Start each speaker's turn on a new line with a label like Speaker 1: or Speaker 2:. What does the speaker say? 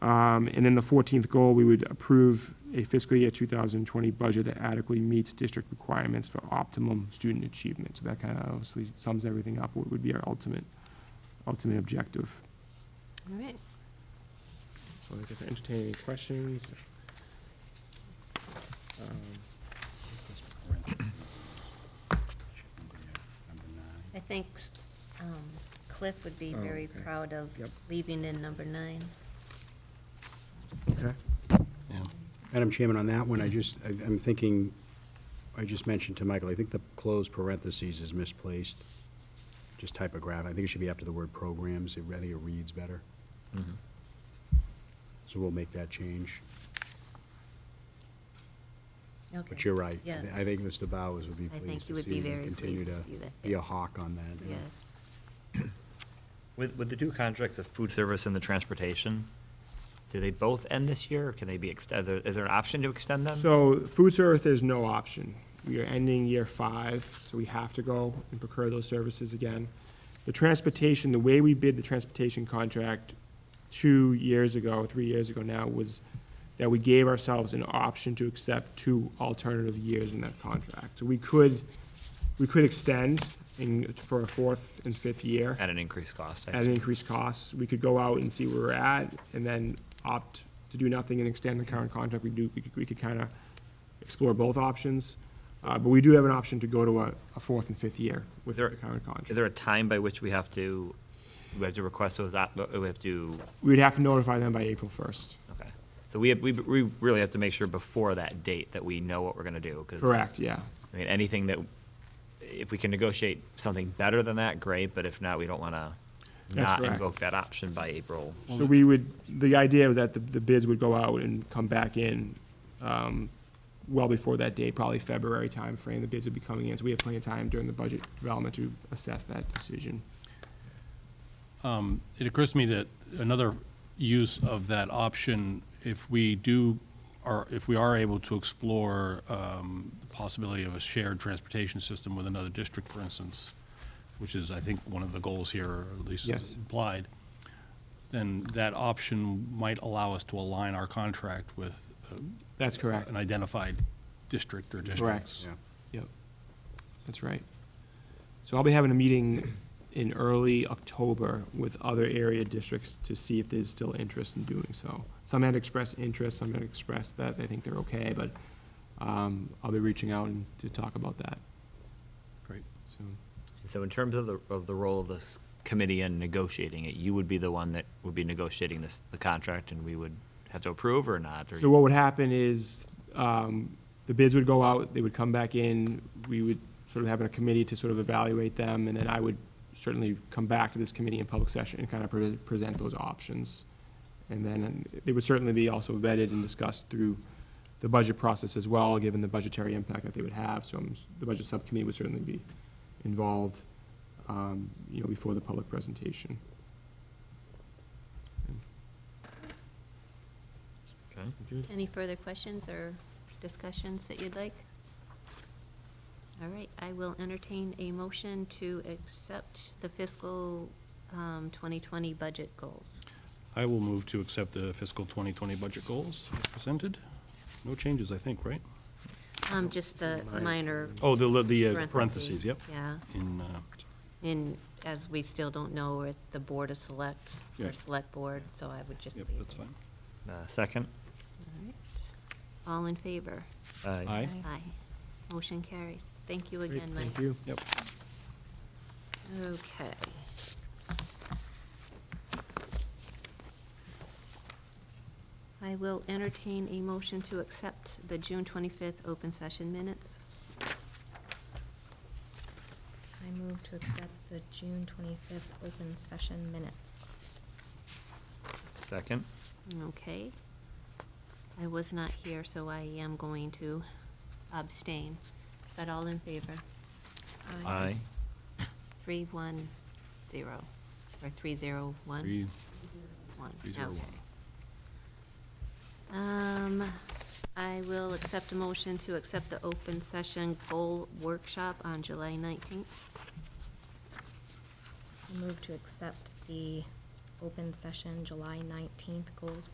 Speaker 1: Um, And then the 14th goal, we would approve a fiscal year 2020 budget that adequately meets district requirements for optimum student achievement. So that kind of obviously sums everything up, what would be our ultimate, ultimate objective.
Speaker 2: All right.
Speaker 1: So I guess entertain any questions? Um,
Speaker 2: I think um, Cliff would be
Speaker 1: Oh,
Speaker 2: very
Speaker 1: okay.
Speaker 2: proud of
Speaker 1: Yep.
Speaker 2: leaving in number nine.
Speaker 1: Okay.
Speaker 3: Madam Chairman, on that one, I just, I- I'm thinking, I just mentioned to Michael, I think the closed parentheses is misplaced, just typographic. I think it should be after the word programs. It- I think it reads better. So we'll make that change.
Speaker 2: Okay.
Speaker 3: But you're right. I
Speaker 2: Yeah.
Speaker 3: thi- I think Mr. Bowers would be
Speaker 2: I think
Speaker 3: pleased
Speaker 2: you
Speaker 3: to
Speaker 2: would
Speaker 3: see
Speaker 2: be
Speaker 3: them
Speaker 2: very
Speaker 3: continue
Speaker 2: pleased
Speaker 3: to
Speaker 2: to see that,
Speaker 3: be
Speaker 2: yeah.
Speaker 3: a hawk on that. yeah.
Speaker 2: Yes.
Speaker 4: With, with the two contracts of food service and the transportation, do they both end this year, or can they be extended? Is there, is there an option to extend them?
Speaker 1: So food service, there's no option. We are ending year five, so we have to go and procure those services again. The transportation, the way we bid the transportation contract two years ago, three years ago now, was that we gave ourselves an option to accept two alternative years in that contract. So we could, we could extend in, for a fourth and fifth year
Speaker 4: At an increased cost? I
Speaker 1: at an
Speaker 4: assume.
Speaker 1: increased cost. We could go out and see where we're at, and then opt to do nothing and extend the current contract. We do, we could, we could kind of explore both options. Uh, but we do have an option to go to a, a fourth and fifth year with
Speaker 4: Is there-
Speaker 1: the current
Speaker 4: Is
Speaker 1: contract.
Speaker 4: there a time by which we have to, we have to request those, op- uh, we have to,
Speaker 1: We'd have to notify them by April first.
Speaker 4: okay. So we, have- we, we really have to make sure before that date that we know what we're gonna do, 'cause,
Speaker 1: Correct, yeah.
Speaker 4: I mean, anything that, if we can negotiate something better than that, great, but if not, we don't wanna
Speaker 1: That's
Speaker 4: not
Speaker 1: correct.
Speaker 4: invoke that option by April.
Speaker 1: So we would, the idea was that the, the bids would go out and come back in, um, well before that date, probably February timeframe, the bids would be coming in. So we have plenty of time during the budget development to assess that decision.
Speaker 5: Um, It occurs to me that another use of that option, if we do, or if we are able to explore um, the possibility of a shared transportation system with another district, for instance, which is, I think, one of the goals here, or at least
Speaker 1: Yes.
Speaker 5: is implied, then that option might allow us to align our contract with uh,
Speaker 1: That's correct.
Speaker 5: an identified district or districts.
Speaker 3: Yeah.
Speaker 1: Yep, that's right. So I'll be having a meeting in early October with other area districts to see if there's still interest in doing so. Some had expressed interest, some had expressed that they think they're okay, but um, I'll be reaching out and to talk about that
Speaker 5: Great.
Speaker 1: soon.
Speaker 4: So in terms of the, of the role of this committee in negotiating it, you would be the one that would be negotiating this, the contract, and we would have to approve or not? or-
Speaker 1: So what would happen is, um, the bids would go out, they would come back in, we would sort of have a committee to sort of evaluate them, and then I would certainly come back to this committee in public session and kind of pre- present those options. And then they would certainly be also vetted and discussed through the budget process as well, given the budgetary impact that they would have, so I'm s- the budget subcommittee would certainly be involved, um, you know, before the public presentation.
Speaker 4: Okay.
Speaker 2: Any further questions or discussions that you'd like? All right, I will entertain a motion to accept the fiscal um, 2020 budget goals.
Speaker 5: I will move to accept the fiscal 2020 budget goals as presented. No changes, I think, right?
Speaker 2: Um, Just the minor
Speaker 5: Oh, the, the uh,
Speaker 2: parentheses.
Speaker 5: parentheses, yep.
Speaker 2: Yeah,
Speaker 5: In, uh,
Speaker 2: and as we still don't know if the board is select,
Speaker 5: Yeah.
Speaker 2: or select board, so I would just leave
Speaker 5: yep,
Speaker 2: it.
Speaker 5: that's fine.
Speaker 4: Uh, Second?
Speaker 2: All right. All in favor?
Speaker 5: Aye.
Speaker 2: Aye. Motion carries. Thank you
Speaker 1: Great,
Speaker 2: again, Mike.
Speaker 1: Thank you.
Speaker 5: Yep.
Speaker 2: Okay. I will entertain a motion to accept the June 25th open session minutes.
Speaker 6: I move to accept the June twenty-fifth open session minutes.
Speaker 4: Second?
Speaker 2: Okay. I was not here, so I am going to abstain. But all in favor? Three, one, zero, or three, zero, one?
Speaker 5: Three-
Speaker 2: One,
Speaker 5: Three zero
Speaker 2: okay.
Speaker 5: one.
Speaker 2: Um, I will accept a motion to accept the open session goal workshop on July 19th.
Speaker 6: I move to accept the open session July nineteenth goals